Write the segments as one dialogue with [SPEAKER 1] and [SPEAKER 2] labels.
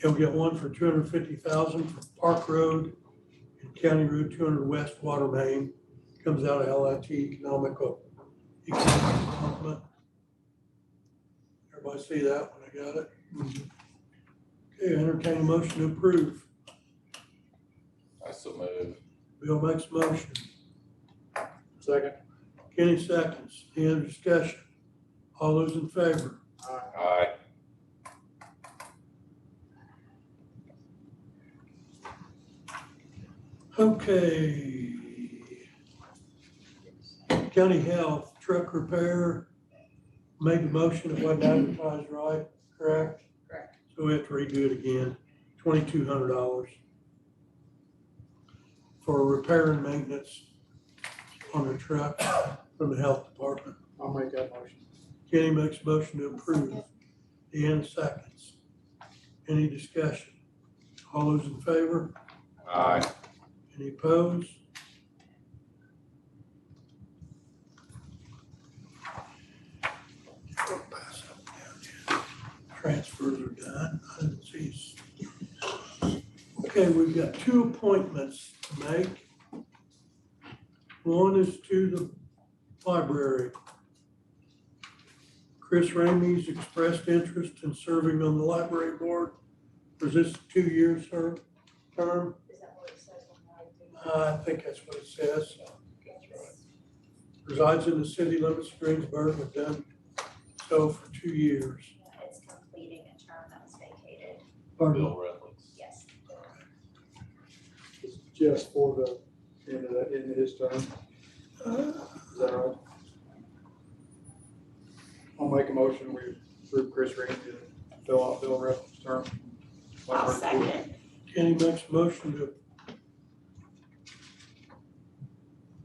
[SPEAKER 1] He'll get one for two hundred fifty thousand for Park Road and County Route two hundred west water main. Comes out of LIT Economical. Economic Development. Everybody see that one? I got it. Okay, entertain a motion to approve.
[SPEAKER 2] I so move.
[SPEAKER 1] Bill makes a motion. Second. Kenny seconds. Any other discussion? All those in favor?
[SPEAKER 2] Aye.
[SPEAKER 1] Okay. County Health Truck Repair made the motion, it wasn't advertised right, correct?
[SPEAKER 3] Correct.
[SPEAKER 1] So we have to redo it again, twenty-two hundred dollars for repair and maintenance on a truck from the health department.
[SPEAKER 4] I'll make that motion.
[SPEAKER 1] Kenny makes a motion to approve. Deanna seconds. Any discussion? All those in favor?
[SPEAKER 2] Aye.
[SPEAKER 1] Any opposed? Transfers are done. I didn't see. s- Okay, we've got two appointments to make. One is to the library. Chris Ramey's expressed interest in serving on the library board. Was this a two-year ser- term?
[SPEAKER 3] Is that what it says on my?
[SPEAKER 1] Uh, I think that's what it says. Resides in the city limits of Greensburg, but done so for two years.
[SPEAKER 3] It's completing a term that was vacated,
[SPEAKER 1] Pardon?
[SPEAKER 2] Bill Reynolds.
[SPEAKER 3] yes.
[SPEAKER 4] It's Just for the end of that, end of his term, is
[SPEAKER 1] Uh,
[SPEAKER 4] that right? I'll make a motion, we approve Chris Ramey to fill out Bill Russell's term.
[SPEAKER 3] I'll second.
[SPEAKER 1] Kenny makes a motion to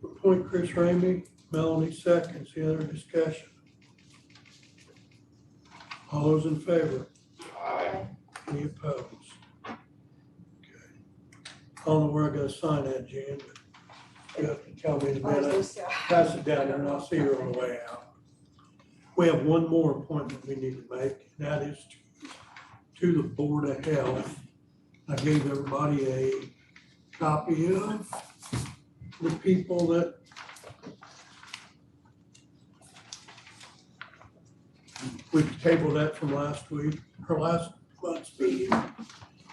[SPEAKER 1] appoint Chris Ramey, Melanie seconds, the other discussion. All those in favor?
[SPEAKER 2] Aye.
[SPEAKER 1] Any opposed? Okay. I don't know where I'm gonna sign that, Jan, but you have to tell me in a minute. pass it down there and I'll see her on the way out. We have one more appointment we need to make, and that is to, to the Board of Health. I gave everybody a copy of the people that we tabled that from last week, or last month's meeting.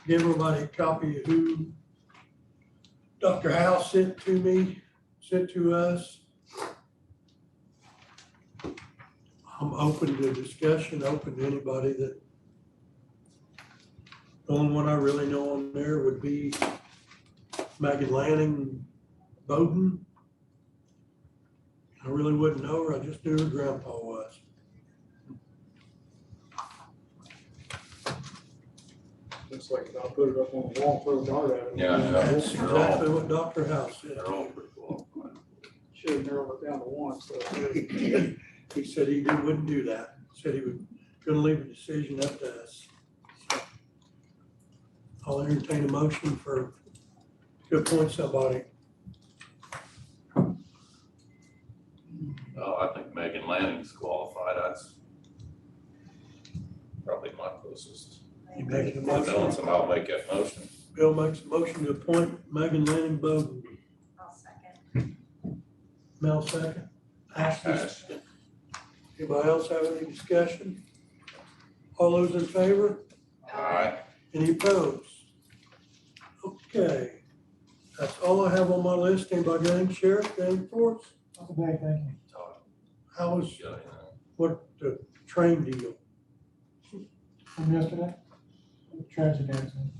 [SPEAKER 1] Give everybody a copy of who Dr. Howe sent to me, sent to us. I'm open to discussion, open to anybody that. The only one I really know on there would be Megan Lanning Bowden. I really wouldn't know her, I just knew her grandpa was.
[SPEAKER 4] Looks like I'll put it up on the wall, throw a dart at it.
[SPEAKER 2] Yeah, I know.
[SPEAKER 1] That's exactly what Dr. House said.
[SPEAKER 2] They're all pretty cool.
[SPEAKER 4] Should have narrowed it down to one, so.
[SPEAKER 1] He said he didn't- wouldn't do that, said he would, gonna leave a decision up to us. I'll entertain a motion for, to appoint somebody.
[SPEAKER 2] Oh, I think Megan Lanning's qualified. That's probably my closest.
[SPEAKER 1] You making a motion?
[SPEAKER 2] That's I'll make that motion.
[SPEAKER 1] Bill makes a motion to appoint Megan Lanning Bowden.
[SPEAKER 3] I'll second.
[SPEAKER 1] Mel second. Ashley.
[SPEAKER 2] Aye.
[SPEAKER 1] Anybody else have any discussion? All those in favor?
[SPEAKER 2] Aye.
[SPEAKER 1] Any opposed? Okay. That's all I have on my list. Anybody got any sheriff, got any force?
[SPEAKER 4] Okay, thank you.
[SPEAKER 2] Todd,
[SPEAKER 1] How was
[SPEAKER 2] you got anything?
[SPEAKER 1] what the train deal?
[SPEAKER 4] From yesterday? Tragic accident.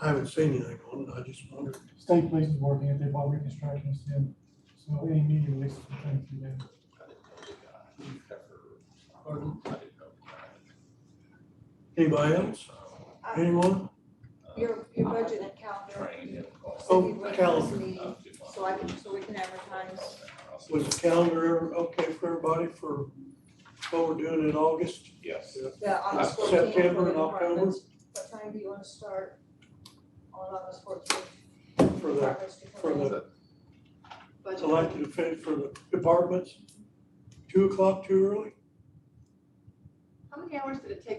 [SPEAKER 1] I haven't seen anything on it. I just wondered.
[SPEAKER 5] state police is working it, they bought reconstructionists in, so any media releases will come through them.
[SPEAKER 2] I didn't know the guy. Pepper.
[SPEAKER 1] Pardon?
[SPEAKER 2] I didn't know the
[SPEAKER 1] Anybody
[SPEAKER 2] guy.
[SPEAKER 1] else?
[SPEAKER 2] So,
[SPEAKER 1] Anyone?
[SPEAKER 2] uh,
[SPEAKER 6] Your, your budget and calendar,
[SPEAKER 2] Trained him.
[SPEAKER 1] Oh,
[SPEAKER 6] city
[SPEAKER 1] calendar.
[SPEAKER 6] budget meeting, so I can, so we can advertise.
[SPEAKER 1] Was the calendar okay for everybody for what we're doing in August?
[SPEAKER 2] Yes.
[SPEAKER 6] The August
[SPEAKER 2] Uh,
[SPEAKER 6] fourteenth for
[SPEAKER 1] September
[SPEAKER 6] the
[SPEAKER 1] and October?
[SPEAKER 6] departments. What time do you want to start on August fourteenth?
[SPEAKER 1] For the- for the
[SPEAKER 6] Budget.
[SPEAKER 1] elected official for the departments, two o'clock too early?
[SPEAKER 7] How many hours did it take